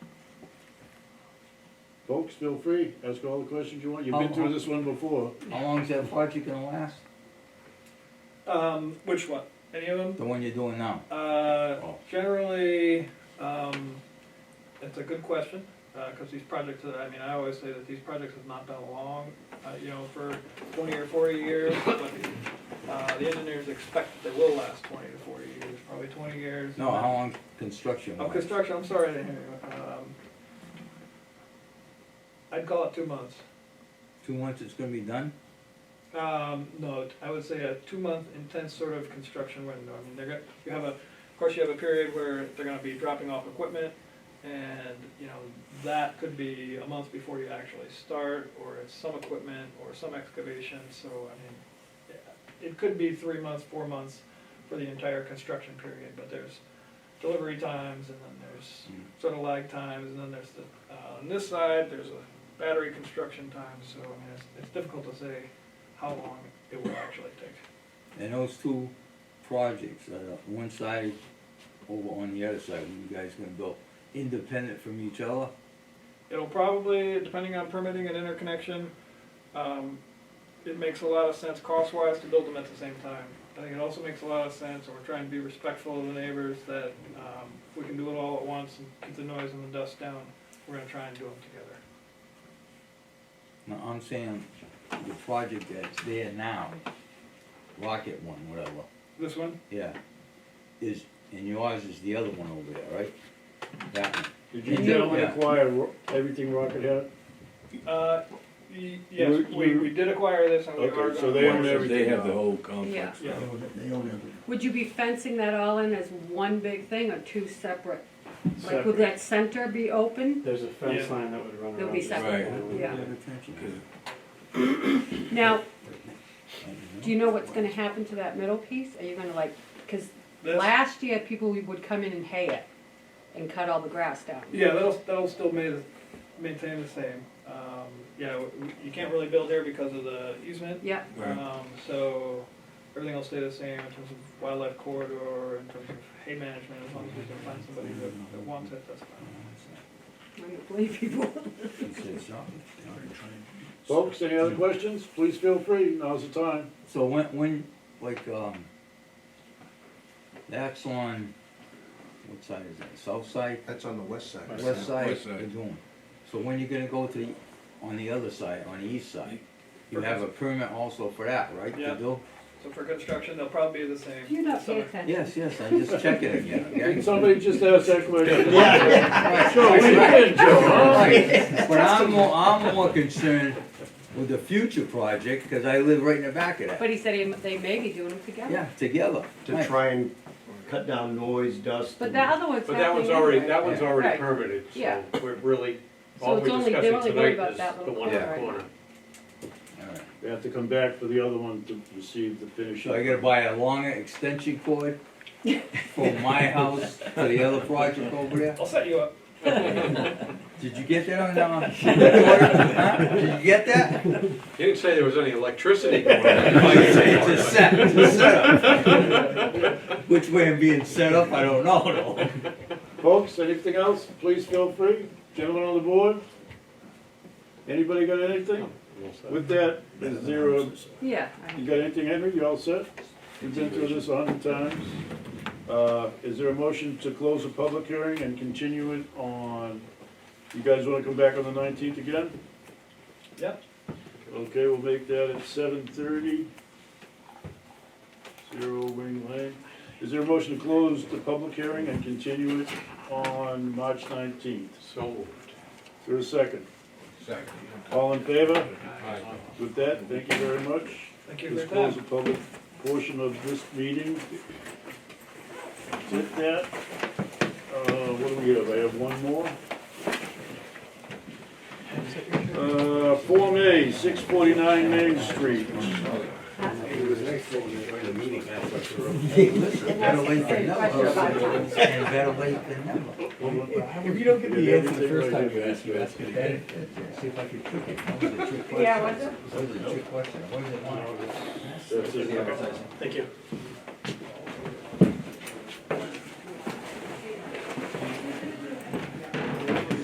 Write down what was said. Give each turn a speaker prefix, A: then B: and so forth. A: Folks, feel free, ask all the questions you want, you've been
B: Oh,
A: through this one before.
C: How long's that project gonna last?
D: Um, which one? Any of them?
C: The one you're doing now?
D: Uh,
C: Oh.
D: generally, um, it's a good question, uh 'cause cause these projects, I mean, I always say that these projects have not been long, uh, you know, for twenty or forty years, but, uh, the engineers expect that they will last twenty to forty years, probably twenty years.
C: No, how long construction
D: Oh,
C: wise?
D: construction, I'm sorry, I didn't hear you, um, I'd call it two months.
C: Two months it's gonna be done?
D: Um, no, I would say a two-month intense sort of construction window. I mean, they're gonna, you have a, of course, you have a period where they're gonna be dropping off equipment, and, you know, that could be a month before you actually start, or it's some equipment, or some excavation, so, I mean, yeah, it could be three months, four months for the entire construction period, but there's delivery times, and then there's
C: Mm.
D: sort of lag times, and then there's the, uh, on this side, there's a battery construction time, so, I mean, it's, it's difficult to say how long it will actually take.
C: And those two projects, uh, one side over on the other side, when you guys gonna go independent from each other?
D: It'll probably, depending on permitting and interconnection, um, it makes a lot of sense cost-wise to build them at the same time. I think it also makes a lot of sense, and we're trying to be respectful of the neighbors, that, um, if we can do it all at once and keep the noise and the dust down, we're gonna try and do them together.
C: No, I'm saying the project that's there now, Rocket one, whatever,
D: This one,
C: yeah, is, and yours is the other one over there, right? That one.
A: Did you
C: Yeah.
A: gentlemen
C: Yeah.
A: acquire ro- everything Rocket had?
D: uh, y- yes,
A: We-
D: we,
A: we-
D: we did acquire this, and we are
A: Okay, so
D: gonna.
A: they own
E: They
A: everything
E: have the
A: now.
E: whole complex.
D: Yeah,
B: Would you be fencing that all in as one big thing or two separate? Like, would
F: Separate.
B: that center be open?
F: There's a fence
D: Yeah.
F: line that would run around.
B: There'll be
F: this.
B: separate,
F: Right.
B: yeah.
E: Because
B: Now, do you know what's gonna happen to that middle piece? Are you gonna like, cause
D: this,
B: last year, people would come in and hay it and cut all the grass down.
D: Yeah, that'll, that'll still ma- maintain the same. Um, yeah, w- w- you can't really build there because of the easement.
B: Yeah,
E: Right.
D: Um, so everything will stay the same in terms of wildlife corridor, in terms of hay management, as long as we can find somebody that, that wants it, that's fine.
B: I'm gonna believe people.
A: Folks, any other questions? Please feel free, now's the time.
C: So when, when, like, um, that's on, what side is that, south side,
G: That's on the west side.
C: west side,
E: West side.
C: you're doing? So when you gonna go to the, on the other side, on the east side? You have a permit also for that, right, to
D: Yeah.
C: do?
D: So for construction, they'll probably be the same.
B: You're not paying
D: Summer-
B: attention.
C: Yes, yes, I just check it again, okay?
A: Did somebody just ask that question? Joe, we did, Joe, huh?
C: Right, But I'm more, I'm more concerned with the future project, cause I live right in the back of that.
B: But he said he- they may be doing them together.
C: Yeah, together.
G: To
C: Right.
G: try and cut down noise, dust.
B: But
G: and-
B: that other one's
H: But that
B: happening
H: one's already,
B: anyway.
H: that one's already
B: Right.
H: permitted,
B: Yeah.
H: so we're really,
B: So
H: all
B: it's
H: we're
B: only- they're only
H: discussing
B: worried
H: tonight
B: about
H: is
B: that
H: the
B: little
H: one in the
C: part.
H: corner.
C: Alright.
A: We have to come back for the other one to receive the finish.
C: So I gotta buy a longer extension cord from my house to the other project over there?
D: I'll set you up.
C: Did you get that on, uh, recorder? Huh? Did you get that?
H: You didn't say there was any electricity going on.
C: It's a set, it's a setup. Which way I'm being set up, I don't know though.
A: Folks, anything else, please feel free. Gentlemen on the board? Anybody got anything? With that, there's zero.
B: Yeah.
A: You got anything, Henry? You all set? We've been through this a hundred times. Uh, is there a motion to close the public hearing and continue it on, you guys wanna come back on the nineteenth again?
D: Yep.
A: Okay, we'll make that at seven thirty. Zero Wing Lane. Is there a motion to close the public hearing and continue it on March nineteenth?
H: So moved.
A: Through a second.
E: Exactly.
A: All in favor?
H: Aye.
A: With that, thank you very much.
D: Thank you
A: Let's
D: for your
A: close
D: time.
A: the public portion of this meeting. With that, uh, what do we have? I have one more. Uh, Form A, six forty-nine Main Street.
B: And that's the same question about time.
C: And better late than never.
I: If you don't get the answer the first time you
A: Yeah,
I: ask, you ask it again, see if I can trick it.
C: That was a trick question.
B: Yeah, what's it?
C: That was a trick question. What did it want?
A: That's it.
D: Thank you.